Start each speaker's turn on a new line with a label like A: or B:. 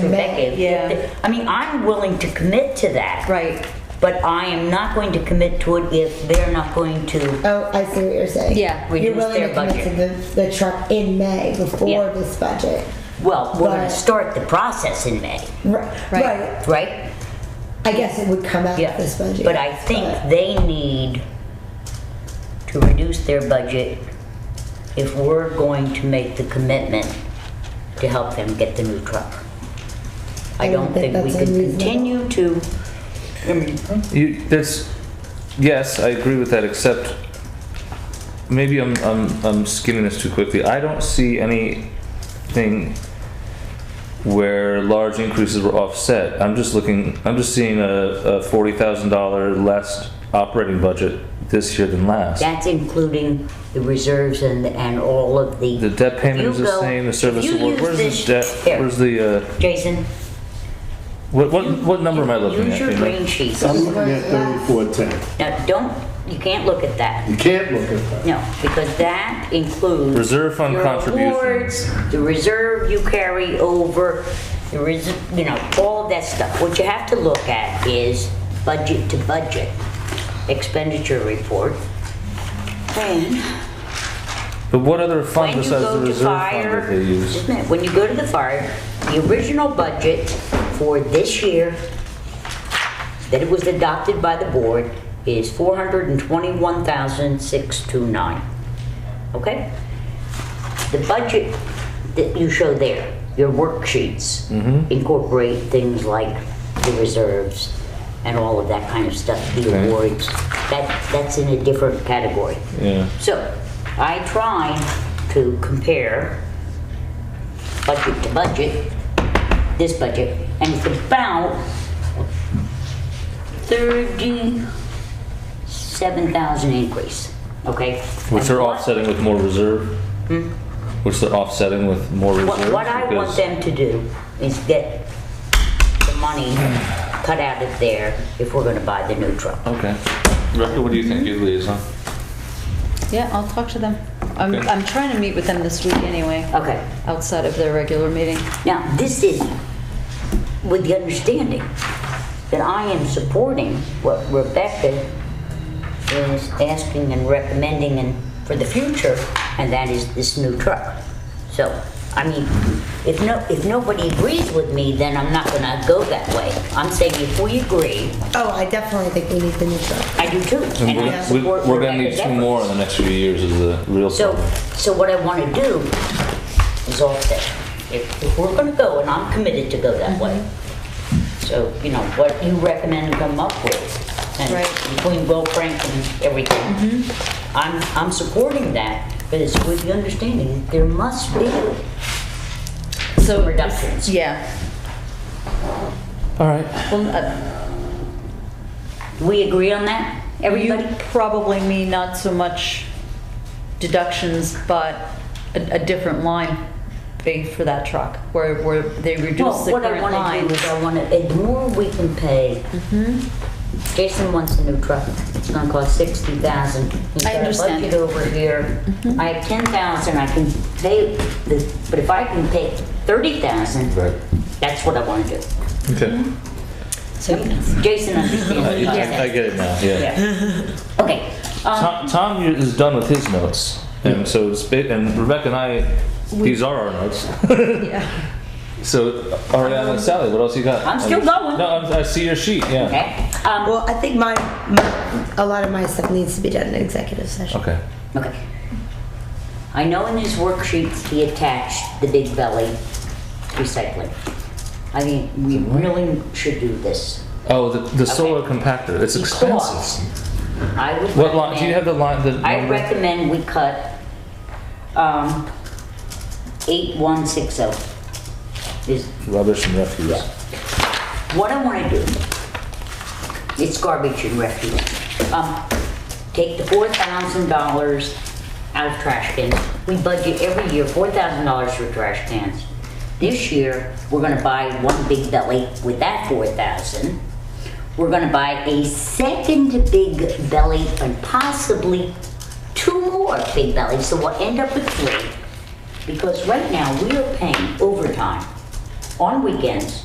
A: consecutive.
B: yeah.
A: I mean, I'm willing to commit to that.
B: Right.
A: But I am not going to commit to it if they're not going to,
C: Oh, I see what you're saying.
D: Yeah,
A: reduce
C: You're willing
A: their
C: to commit to the, the truck in May before
A: Yeah.
C: this budget.
A: well, we're gonna
C: Right.
A: start the process in May,
C: Right.
D: Right.
C: right.
A: right?
C: I guess it would come out
A: Yeah.
C: of this budget.
A: But I think
C: but-
A: they need to reduce their budget if we're going to make the commitment to help them get the new truck. I don't think we
C: that's
A: can
C: unreasonable.
A: continue to, I mean,
E: You, that's, yes, I agree with that, except maybe I'm, I'm, I'm skimming this too quickly. I don't see anything where large increases were offset. I'm just looking, I'm just seeing a, a forty thousand dollar less operating budget this year than last.
A: That's including the reserves and, and all of the.
E: The debt payment is
A: You
E: the
A: go-
E: same, the service
A: you
E: award,
A: use
E: where's
A: this-
E: the debt,
A: here,
E: where's the, uh,
A: Jason?
E: what, what, what number am I looking
A: Use
E: at?
A: your
E: Dana?
A: green sheet.
F: I'm looking at thirty-four ten.
A: Now, don't, you can't look at that,
F: You can't look at that.
A: no, because that includes.
E: Reserve fund
A: your
E: contribution.
A: awards, The reserve you carry over, the res, you know, all of that stuff. What you have to look at is budget to budget expenditure report. And
E: But what other fund
A: when you
E: besides the
A: go to
E: reserve fund
A: fire,
E: that they use?
A: just a minute, when you go to the fire, the original budget for this year that it was adopted by the board is four hundred and twenty-one thousand six two nine. Okay? The budget that you show there, your worksheets
E: Mm-hmm.
A: incorporate things like the reserves and all of that kind of stuff, the
E: Okay.
A: awards. That, that's in a different category.
E: Yeah.
A: So I tried to compare budget to budget, this budget, and it's about thirty-seven thousand increase, okay?
E: Which
A: And
E: they're
A: what-
E: offsetting with more reserve? Which they're offsetting with more reserve?
A: Hmm? What, what I want them to do is get the money cut out of there if we're gonna buy the new truck.
E: Okay. Rebecca, what do you think, you liaison?
D: Yeah, I'll talk to them. I'm,
E: Okay.
D: I'm trying to meet with them this week anyway.
A: Okay.
D: Outside of their regular meeting.
A: Now, this is with the understanding that I am supporting what Rebecca is asking and recommending and for the future, and that is this new truck. So, I mean, if no, if nobody agrees with me, then I'm not gonna go that way. I'm saying if we agree,
C: Oh, I definitely think we need the new truck.
A: I do too.
E: And
A: and I
E: we're, we-
A: support
E: we're gonna need
A: Rebecca's
E: two
A: efforts.
E: more in the next few years is the real
A: So,
E: problem.
A: so what I want to do is offset. If, if we're going to go, and I'm committed to go that way,
D: Mm-hmm.
A: so, you know, what you recommend come up with, and
D: Right. Mm-hmm.
A: between Will Frank and everything, I'm, I'm supporting that, but it's with the understanding, there must be
D: So
A: some reductions.
D: Yeah.
E: All right.
D: Well, uh,
A: We agree on that,
D: you
A: everybody?
D: probably mean not so much deductions, but a, a different line fee for that truck, where, where they reduce
A: Well,
D: the
A: what I
D: current
A: want to
D: line.
A: do is I want to, the more we can pay,
D: Mm-hmm.
A: Jason wants a new truck. It's gonna cost sixty thousand.
D: I understand. Mm-hmm.
A: He's got a budget over here. I have ten thousand, I can pay this, but if I can pay thirty thousand,
E: Right.
A: that's what I want to do.
E: Okay.
A: Hmm? So Jason understands. what
E: I,
A: I'm
E: I- I
A: saying.
E: get it now, yeah.
A: Yeah. Okay, um,
E: Tom, Tom is done with his notes. And so, it's ba- and Rebecca and I, these are our notes. So, Ariana and Sally, what else you got?
A: I'm still going.
E: No, I'm- I see your sheet, yeah.
A: okay, um,
C: Well, I think my, my a lot of my stuff needs to be done in executive session.
E: Okay.
A: okay. I know in his worksheets, he attached the big belly recycling. I mean, we really should do this.
E: Oh, the, the solar compactor, it's expensive.
A: Because I would
E: What line, do you have
A: recommend-
E: the line, the
A: I
E: number?
A: recommend we cut, um, eight one six oh. Is,
E: Rubbish and refuse.
A: yeah. What I wanna do, it's garbage and refuse. Um, take the four thousand dollars out of trash cans. We budget every year four thousand dollars for trash cans. This year, we're gonna buy one big belly with that four thousand. We're gonna buy a second big belly and possibly two more big bellies, so we'll end up with three. Because right now, we are paying overtime on weekends